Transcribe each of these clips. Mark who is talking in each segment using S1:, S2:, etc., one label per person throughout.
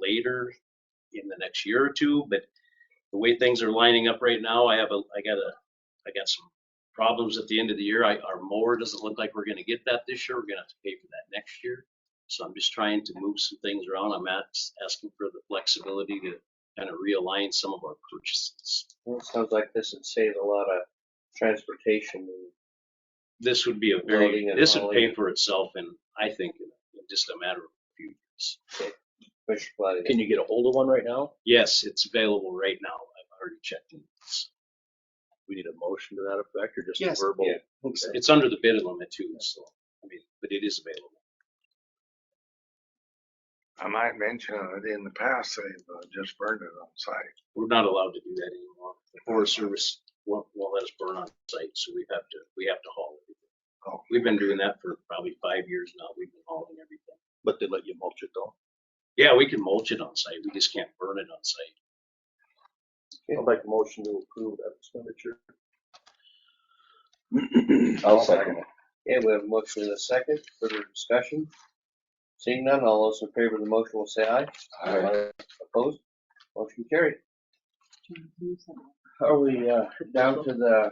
S1: later in the next year or two, but the way things are lining up right now, I have a, I got a, I got some problems at the end of the year. I, our mower doesn't look like we're gonna get that this year. We're gonna have to pay for that next year. So I'm just trying to move some things around. I'm as- asking for the flexibility to kind of realign some of our purchases.
S2: Well, it sounds like this would save a lot of transportation and
S1: This would be a
S2: Loading
S1: very,
S2: and
S1: this would pay
S2: hauling.
S1: for itself and I think in in just a matter of a few years.
S2: push flooding.
S3: Can you get a hold of one right now?
S1: Yes, it's available right now. I've already checked in. It's-
S3: We need a motion to that effect or just
S1: Yes.
S3: a verbal?
S2: Yeah.
S1: It's, it's under the bid limit too, so, I mean, but it is available.
S4: I might mention it in the past, they've uh, just burned it on site.
S1: We're not allowed to do that anymore. The Forest Service won't, won't let us burn on site, so we have to, we have to haul everything.
S4: Oh.
S1: We've been doing that for probably five years now. We've been hauling everything.
S3: But they let you mulch it though?
S1: Yeah, we can mulch it on site. We just can't burn it on site.
S3: I'd like a motion to approve that expenditure.
S5: I'll second it.
S2: Okay, we have a motion in a second, further discussion. Seeing none, all those in favor of the motion will say aye.
S5: Aye.
S2: Opposed? Motion carried.
S6: John, can you send it?
S2: Are we, uh, down to the,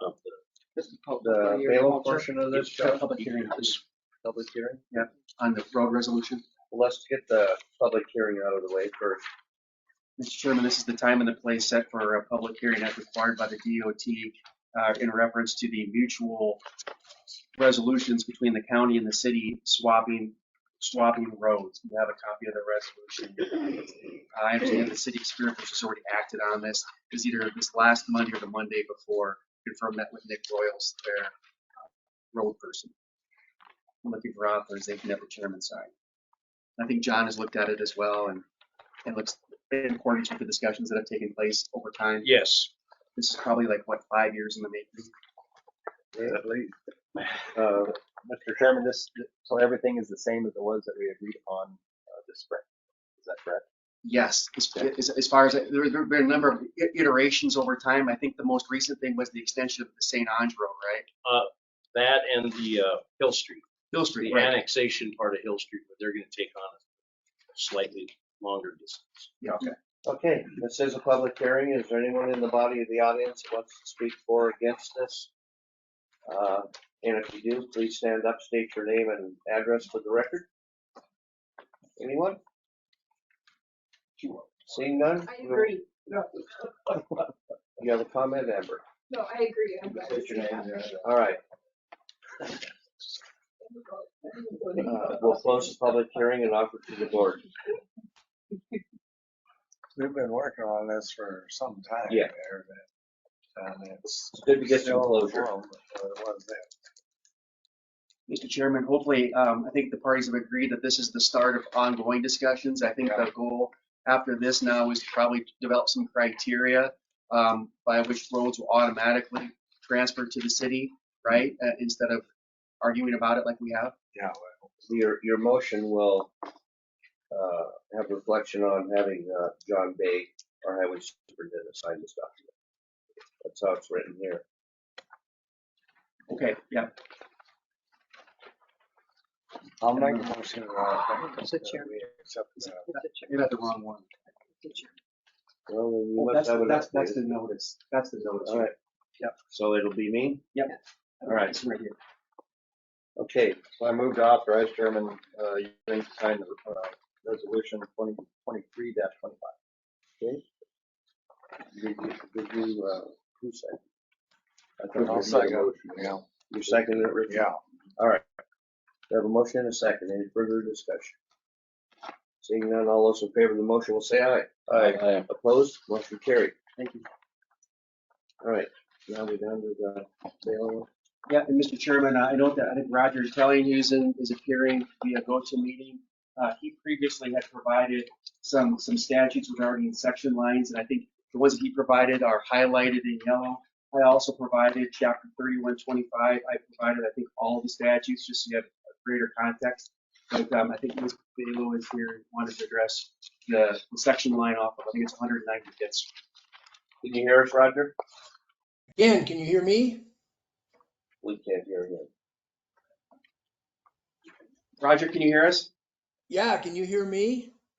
S1: Of the-
S6: This is public
S2: the
S6: for your
S2: bailiff
S6: culture.
S2: portion of this?
S7: Sure, Public hearing
S1: Yes.
S2: Public hearing?
S7: on the road resolution.
S2: Let's get the public hearing out of the way first.
S7: Mr. Chairman, this is the time and the place set for a public hearing as required by the DOT uh, in reference to the mutual resolutions between the county and the city swapping, swapping roads. You have a copy of the resolution. I understand the city of Spear Bush has already acted on this. It was either this last Monday or the Monday before. Confirmed that with Nick Royals, their uh, road person. I'm looking for authorization at the chairman's side. I think John has looked at it as well and it looks in accordance with the discussions that have taken place over time.
S1: Yes,
S7: This is probably like, what, five years in the making?
S5: Uh, Mr. Chairman, this, so everything is the same as it was that we agreed upon uh, this spring. Is that correct?
S7: Yes, as, as- as far as, there there have been a number of i- iterations over time. I think the most recent thing was the extension of the St. Ange Road, right?
S1: that and the, uh, Hill Street,
S7: Hill Street,
S1: the
S7: right?
S1: annexation part of Hill Street, but they're gonna take on a slightly longer distance.
S7: Yeah, okay.
S2: Okay, this is a public hearing. Is there anyone in the body of the audience that wants to speak for or against this? Uh, And if you do, please stand up, state your name and address for the record. Anyone? Seeing none?
S8: I agree. No,
S2: You have a comment, Amber?
S8: no, I agree. I'm glad to
S2: State
S8: see
S2: your name.
S8: that.
S2: All right, uh, we'll close the public hearing and offer to the board.
S4: We've been working on this for some time
S2: Yeah.
S4: there. but, And it's.
S2: It's good to get some
S4: still
S2: closure.
S4: warm before it was then.
S7: Mr. Chairman, hopefully, um, I think the parties have agreed that this is the start of ongoing discussions. I think the goal after this now is to probably develop some criteria um, by which roads will automatically transfer to the city, right? Uh, Instead of arguing about it like we have.
S4: Yeah,
S2: Your, your motion will uh, have reflection on having uh, John Bay, our highway superintendent, sign this document. That's how it's written here.
S7: Okay, yeah.
S4: I'll make a motion. uh,
S6: It's the
S4: that
S6: chair.
S4: we accept
S6: It's
S4: the-
S6: the chair.
S7: You got the wrong one.
S6: It's the chair.
S2: Well, then you
S7: Well,
S2: must
S7: That's,
S2: have it
S7: that's, that's the
S2: updated.
S7: notice. That's the notice.
S2: All right.
S7: Yep.
S2: So it'll be me? all right.
S7: It's right here.
S5: Okay, so I moved to authorize Chairman, uh, Euring to sign the, uh, resolution twenty twenty-three dash twenty-five.
S2: Did you, did you, uh, who seconded? I thought
S4: I'll
S2: you made a
S4: second.
S2: motion.
S4: Yeah,
S2: You seconded it, Rick?
S4: yeah.
S2: We have a motion and a second. Any further discussion? Seeing none, all those in favor of the motion will say aye.
S5: Aye.
S2: Opposed? Motion carried.
S7: Thank you.
S2: All right, now we're down to the bailiff.
S7: Yeah, and Mr. Chairman, I note that I think Roger Tellinghusen is appearing via GoToMeeting. Uh, he previously had provided some, some statutes regarding section lines, and I think the ones that he provided are highlighted in yellow. I also provided chapter thirty-one twenty-five. I provided, I think, all the statutes, just so you have a greater context. But, um, I think Ms. Bailo is here, and wanted to address the, the section line off of, I think it's one hundred and ninety Fifth Street.
S2: Can you hear us, Roger?
S9: Dan, can you hear me?
S2: We can't hear you.
S7: Roger, can you hear us?
S9: Yeah, can you hear me?